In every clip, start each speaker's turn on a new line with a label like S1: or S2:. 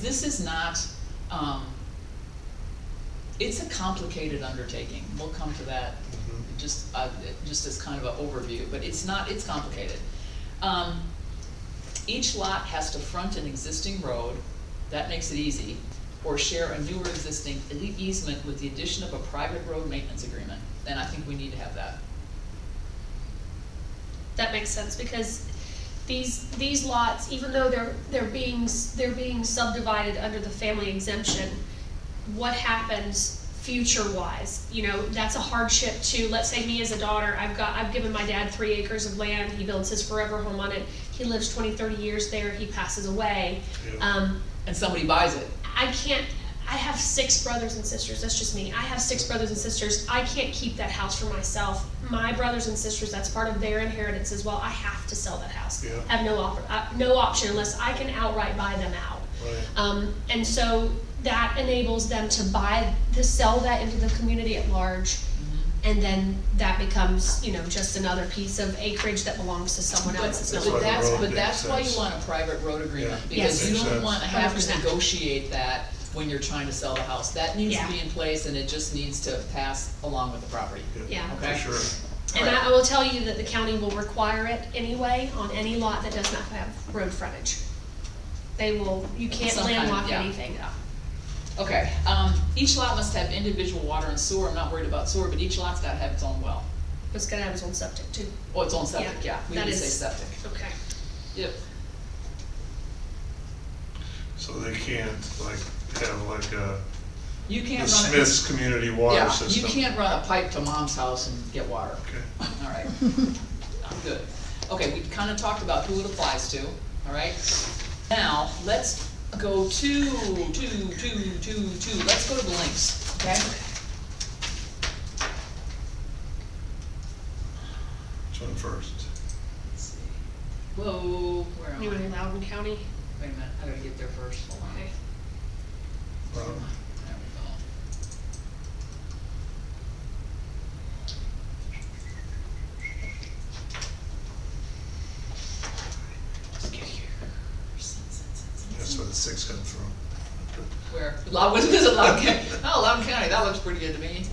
S1: This is not, um, it's a complicated undertaking, we'll come to that,
S2: Mhm.
S1: just, uh, just as kind of an overview, but it's not, it's complicated. Um, each lot has to front an existing road, that makes it easy, or share a newer existing e-, easement with the addition of a private road maintenance agreement, and I think we need to have that.
S3: That makes sense, because these, these lots, even though they're, they're being, s- they're being subdivided under the family exemption, what happens future-wise? You know, that's a hardship to, let's say me as a daughter, I've got, I've given my dad three acres of land, he builds his forever home on it, he lives 20, 30 years there, he passes away.
S1: Uh,
S2: Yeah.
S3: Um,
S1: And somebody buys it,
S3: I can't, I have six brothers and sisters, that's just me. I have six brothers and sisters, I can't keep that house for myself. My brothers and sisters, that's part of their inheritance as well, I have to sell that house.
S2: Yeah.
S3: I have no offer, uh, no option unless I can outright buy them out.
S2: Right.
S3: Um, and so that enables them to buy, to sell that into the community at large. And then that becomes, you know, just another piece of acreage that belongs to someone
S1: But,
S3: else, it's not.
S1: but
S2: why the
S1: that's,
S2: road
S1: but
S2: makes
S1: that's why you
S2: sense.
S1: want a private road agreement,
S2: Yeah,
S1: because
S3: Yes.
S1: you
S2: makes
S1: don't
S2: sense.
S1: wanna have to
S3: 100%.
S1: negotiate that when you're trying to sell the house. That needs to
S3: Yeah.
S1: be in place, and it just needs to pass along with the property.
S3: Yeah.
S2: For sure.
S3: And I, I will tell you that the county will require it anyway on any lot that does not have road frontage. They will, you can't
S1: Some kind of-
S3: landlock
S1: yeah.
S3: anything up.
S1: Okay, um, each lot must have individual water and sewer, I'm not worried about sewer, but each lot's gotta have its own well,
S3: It's gonna have its own septic too.
S1: or its own septic, yeah,
S3: Yeah,
S1: we
S3: that
S1: need to say
S3: is-
S1: septic,
S3: Okay.
S1: yep.
S2: So they can't like have like a,
S1: You can't run.
S2: the Smith's community water
S1: Yeah,
S2: system.
S1: you can't run a pipe to mom's house and get water.
S2: Okay.
S1: All right, good. Okay, we've kind of talked about who it applies to, all right? Now, let's go to, to, to, to, to, let's go to the links, okay?
S2: Which one first?
S1: Let's see. Whoa, where am I?
S3: You
S1: Wait
S3: in Loudon County?
S1: a minute, I gotta get there first, hold on.
S3: Okay.
S1: There we
S2: Um,
S1: go. Let's get here. Sin, sin, sin, sin,
S2: That's
S1: sin.
S2: where the six come from.
S1: Where? Loud, what is it, Loudon County? Oh, Loudon County, that looks pretty good to me.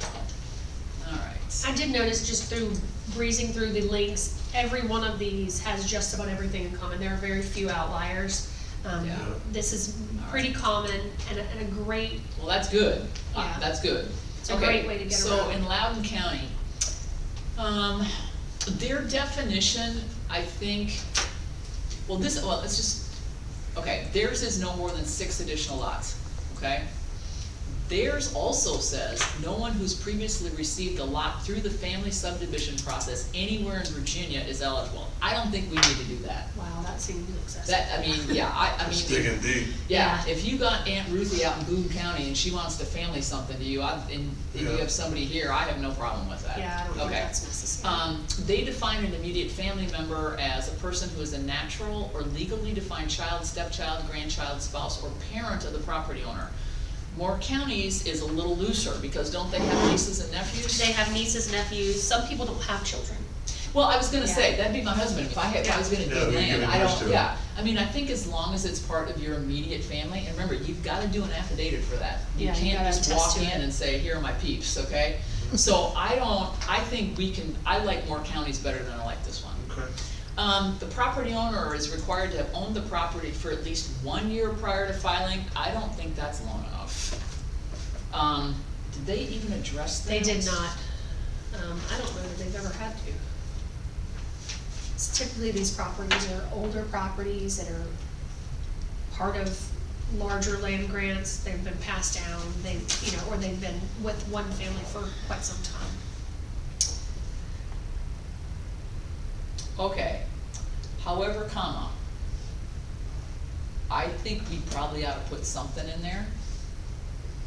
S1: Alright.
S3: I did notice just through breezing through the links, every one of these has just about everything in common. There are very few outliers. Um,
S1: Yeah.
S3: this is pretty common and a, and a great,
S1: Well, that's good. Uh,
S3: Yeah.
S1: That's good.
S3: It's a
S1: Okay,
S3: great way to get
S1: So
S3: around.
S1: in Loudon County, um, their definition, I think, well, this, well, it's just, okay, theirs is no more than six additional lots, okay? Theirs also says, no one who's previously received a lot through the family subdivision process anywhere in Virginia is eligible. I don't think we need to do that.
S3: wow, that seems excessive.
S1: That, I mean, yeah, I, I
S2: It's
S1: mean,
S2: digging deep.
S1: yeah, if you got Aunt Ruthie out in Boone County and she wants to family something to you, I, and, and you
S2: Yeah.
S1: have somebody here, I have no problem with that.
S3: Yeah, I don't think
S1: Okay.
S3: that's necessary.
S1: Um, they define an immediate family member as a person who is a natural or legally defined child, stepchild, grandchild, spouse, or parent of the property owner. More counties is a little looser, because don't they have nieces and nephews?
S3: They have nieces, nephews, some people don't have children.
S1: Well, I was gonna
S3: Yeah.
S1: say, that'd be my husband, if I had, if I was gonna
S2: Yeah.
S1: do
S2: Yeah, you're
S1: land,
S2: getting
S1: I
S2: used to
S1: don't,
S2: it.
S1: yeah. I mean, I think as long as it's part of your immediate family, and remember, you've gotta do an affidavit for that. You
S3: Yeah, you
S1: can't
S3: gotta
S1: just
S3: attest
S1: walk
S3: to
S1: in
S3: it.
S1: and say, here are my peeps, okay? So I don't, I think we can, I like more counties better than I like this one.
S2: Okay.
S1: Um, the property owner is required to have owned the property for at least one year prior to filing, I don't think that's long enough. Um, did they even address that?
S3: They did not, um, I don't know that they've ever had to. It's Typically, these properties are older properties that are part of larger land grants, they've been passed down, they, you know, or they've been with one family for quite some time.
S1: Okay, however, comma, I think we probably ought to put something in there,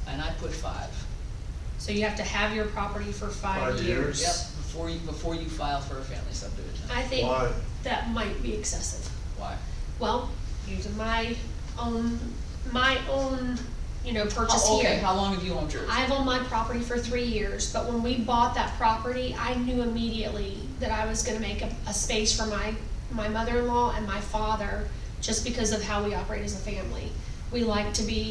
S1: and I put five.
S3: So you have to have your property for five
S2: Five
S3: years.
S2: years.
S1: Yep, before you, before you file for a family subdivision.
S3: I think
S2: Why?
S3: that might be excessive.
S1: Why?
S3: Well, using my own, my own, you know, purchase
S1: How- Oh,
S3: here.
S1: Okay, how long have you owned yours?
S3: I've owned my property for three years, but when we bought that property, I knew immediately that I was gonna make a, a space for my, my mother-in-law and my father, just because of how we operate as a family. we like to be